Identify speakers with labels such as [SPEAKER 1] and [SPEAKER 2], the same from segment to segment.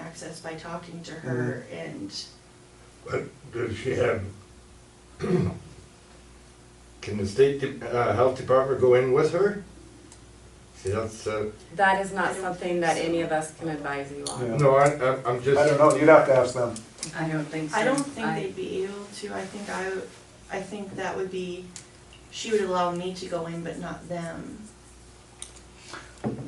[SPEAKER 1] access by talking to her and
[SPEAKER 2] But does she have, can the state, de- uh, health department go in with her? See, that's, uh,
[SPEAKER 3] That is
[SPEAKER 1] I
[SPEAKER 3] not
[SPEAKER 1] don't
[SPEAKER 3] something
[SPEAKER 1] think
[SPEAKER 3] that
[SPEAKER 1] so.
[SPEAKER 3] any of us can advise you on.
[SPEAKER 4] Yeah.
[SPEAKER 2] no, I, I'm- I'm just.
[SPEAKER 4] I don't know, you'd have to ask them.
[SPEAKER 5] I don't think so.
[SPEAKER 1] I don't think they'd be able to, I think I, would- I think that would be, she would allow me to go in, but not them.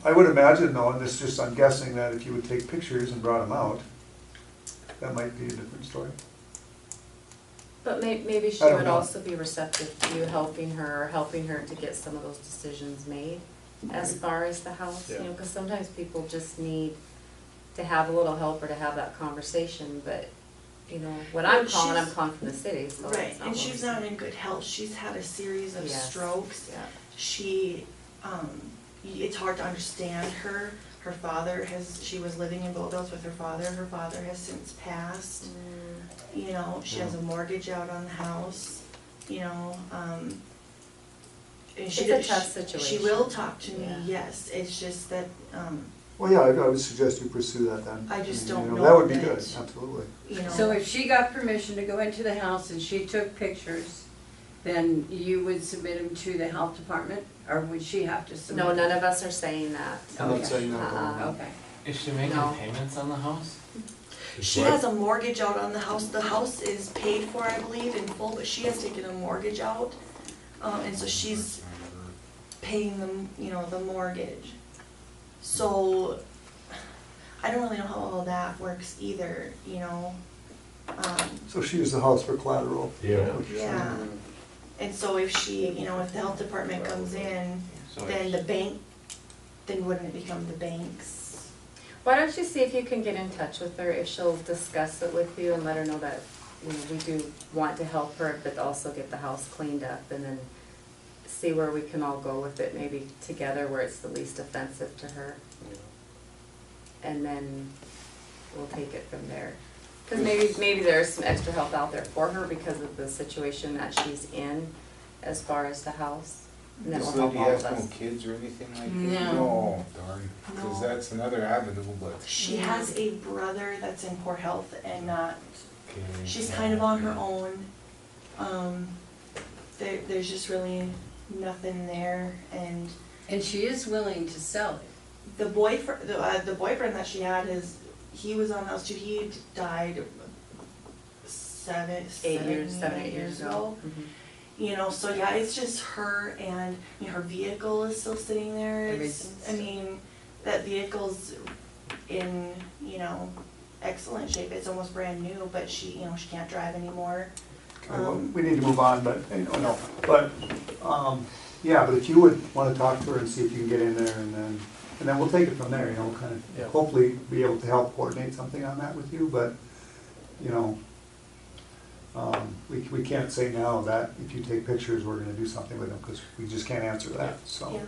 [SPEAKER 4] I would imagine though, and this just, I'm guessing that if you would take pictures and brought them out, that might be a different story.
[SPEAKER 3] But may, maybe she
[SPEAKER 4] I don't
[SPEAKER 3] would
[SPEAKER 4] know.
[SPEAKER 3] also be receptive to you helping her or helping her to get some of those decisions made as far as the house, you know, because sometimes people just need to have a little help or to have that conversation, but, you know, when I'm
[SPEAKER 1] Well,
[SPEAKER 3] calling, I'm
[SPEAKER 1] she's-
[SPEAKER 3] calling from the city, so. it's
[SPEAKER 1] Right, and
[SPEAKER 3] what
[SPEAKER 1] she's
[SPEAKER 3] we're
[SPEAKER 1] not
[SPEAKER 3] saying.
[SPEAKER 1] in good health, she's had a series of
[SPEAKER 3] Yes.
[SPEAKER 1] strokes.
[SPEAKER 3] Yeah.
[SPEAKER 1] She, um, y- it's hard to understand her, her father has, she was living in Bowville's with her father, her father has since passed. you know, she has a mortgage out on the house, you know, um. and she
[SPEAKER 3] It's a tough
[SPEAKER 1] she- She
[SPEAKER 3] situation.
[SPEAKER 1] will talk to me,
[SPEAKER 3] Yeah.
[SPEAKER 1] yes, it's just that, um,
[SPEAKER 4] Well, yeah, I would suggest you pursue that then.
[SPEAKER 1] I just don't
[SPEAKER 4] You
[SPEAKER 1] know
[SPEAKER 4] That would be
[SPEAKER 1] that-
[SPEAKER 4] good, absolutely.
[SPEAKER 1] you know.
[SPEAKER 5] So if she got permission to go into the house and she took pictures, then you would submit them to the health department, or would she have to submit?
[SPEAKER 3] No, none of us are saying that.
[SPEAKER 4] I'm
[SPEAKER 5] Okay.
[SPEAKER 4] not saying that.
[SPEAKER 3] Uh-uh.
[SPEAKER 4] no.
[SPEAKER 5] Okay.
[SPEAKER 6] Is she making
[SPEAKER 3] No.
[SPEAKER 6] payments on the house?
[SPEAKER 1] She has a mortgage out on the house, the house is paid for, I believe, in full, but she has taken a mortgage out, um, and so she's paying them, you know, the mortgage. So, I don't really know how all that works either, you know, um.
[SPEAKER 4] So she used the house for collateral.
[SPEAKER 2] Yeah.
[SPEAKER 4] which is-
[SPEAKER 1] Yeah, and so if she, you know, if the health department comes in,
[SPEAKER 6] So
[SPEAKER 1] then
[SPEAKER 6] if-
[SPEAKER 1] the bank, then wouldn't it become the bank's?
[SPEAKER 3] Why don't you see if you can get in touch with her, if she'll discuss it with you and let her know that, you know, we do want to help her, but also get the house cleaned up and then see where we can all go with it, maybe together where it's the least offensive to her. And then we'll take it from there. Cause maybe, maybe there's some extra help out there for her because of the situation that she's in as far as the house. And that will
[SPEAKER 7] This
[SPEAKER 3] help
[SPEAKER 7] lady
[SPEAKER 3] all of
[SPEAKER 7] has no
[SPEAKER 3] us.
[SPEAKER 7] kids or anything like that?
[SPEAKER 5] No.
[SPEAKER 7] No, darn, because
[SPEAKER 1] No.
[SPEAKER 7] that's another avenue, but.
[SPEAKER 1] She has a brother that's in poor health and not,
[SPEAKER 6] Mm.
[SPEAKER 1] she's kind of on her own. Um, there, there's just really nothing there, and
[SPEAKER 5] And she is willing to sell it.
[SPEAKER 1] the boyfriend, the, uh, the boyfriend that she had is, he was on house too, he died seven,
[SPEAKER 3] Eight years,
[SPEAKER 1] seven, eight years ago.
[SPEAKER 3] Mhm.
[SPEAKER 1] You know, so yeah, it's just her and, you know, her vehicle is still sitting there, it's, I
[SPEAKER 5] Everything's-
[SPEAKER 1] mean, that vehicle's in, you know, excellent shape, it's almost brand new, but she, you know, she can't drive anymore.
[SPEAKER 4] Okay, well,
[SPEAKER 1] Um,
[SPEAKER 4] We need to move on, but, you know, no, but, um, yeah, but if you would wanna talk to her and see if you can get in there and then, and then we'll take it from there, you know, kind
[SPEAKER 6] Yeah.
[SPEAKER 4] of, hopefully be able to help coordinate something on that with you, but, you know, um, we, we can't say now that if you take pictures, we're gonna do something with them, because we just can't answer that, so.
[SPEAKER 1] Yeah,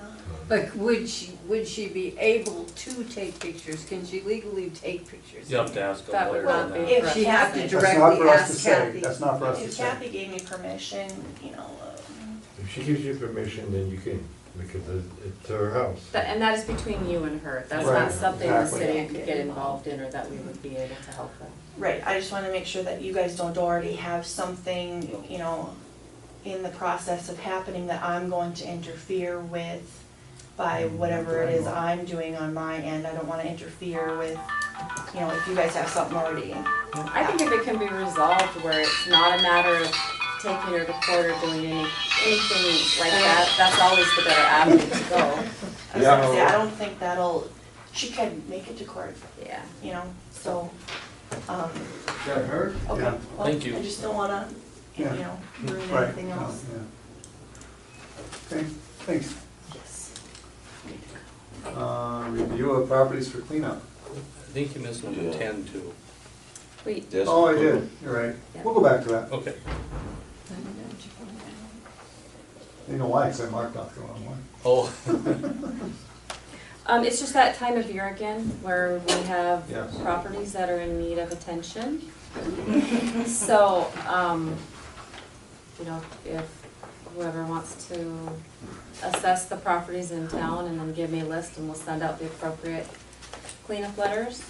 [SPEAKER 5] But would she, would she be able to take pictures? Can she legally take pictures?
[SPEAKER 8] You have to ask a
[SPEAKER 3] That would
[SPEAKER 8] lawyer
[SPEAKER 3] not
[SPEAKER 8] on
[SPEAKER 3] be.
[SPEAKER 8] that.
[SPEAKER 1] If
[SPEAKER 5] She
[SPEAKER 1] she
[SPEAKER 5] has to
[SPEAKER 1] hasn't.
[SPEAKER 4] That's not
[SPEAKER 5] directly
[SPEAKER 4] for us to
[SPEAKER 5] ask
[SPEAKER 4] say,
[SPEAKER 5] Kathy.
[SPEAKER 4] that's not for us to
[SPEAKER 1] if
[SPEAKER 4] say.
[SPEAKER 1] Kathy gave me permission, you know, um,
[SPEAKER 2] If she gives you permission, then you can, because it- it's her house.
[SPEAKER 3] That- And that is between you and her, that's
[SPEAKER 4] Right,
[SPEAKER 3] not something the
[SPEAKER 4] exactly.
[SPEAKER 3] city could get involved in or that we would be able to help with.
[SPEAKER 1] right, I just wanna make sure that you guys don't already have something, you know, in the process of happening that I'm going to interfere with by
[SPEAKER 4] Mm,
[SPEAKER 1] whatever it is I'm doing on my end, I don't wanna interfere with, you know, if you guys have something already.
[SPEAKER 3] I think if it can be resolved where it's not a matter of taking her to court or doing any, anything like that, that's always the better avenue to go,
[SPEAKER 1] I was gonna say, I don't think that'll, she can make it to court,
[SPEAKER 3] yeah.
[SPEAKER 1] you know, so, um,
[SPEAKER 7] that her?
[SPEAKER 1] okay.
[SPEAKER 4] Yeah.
[SPEAKER 1] Well,
[SPEAKER 8] Thank you.
[SPEAKER 1] I just don't wanna, you
[SPEAKER 4] Yeah.
[SPEAKER 1] know, ruin
[SPEAKER 4] Right,
[SPEAKER 1] anything
[SPEAKER 4] no,
[SPEAKER 1] else.
[SPEAKER 4] yeah. Okay, thanks.
[SPEAKER 1] Yes.
[SPEAKER 4] Uh, review of properties for cleanup.
[SPEAKER 8] I think you missed number
[SPEAKER 9] Yeah.
[SPEAKER 8] ten too.
[SPEAKER 3] We,
[SPEAKER 9] Yes.
[SPEAKER 4] Oh, I did, you're right. We'll go back to that.
[SPEAKER 8] Okay.
[SPEAKER 4] You know why, because I marked off the wrong one.
[SPEAKER 8] Oh,
[SPEAKER 3] um, it's just that time of year again where we have
[SPEAKER 4] Yes.
[SPEAKER 3] properties that are in need of attention. So, um, you know, if whoever wants to assess the properties in town and then give me a list and we'll send out the appropriate cleanup letters.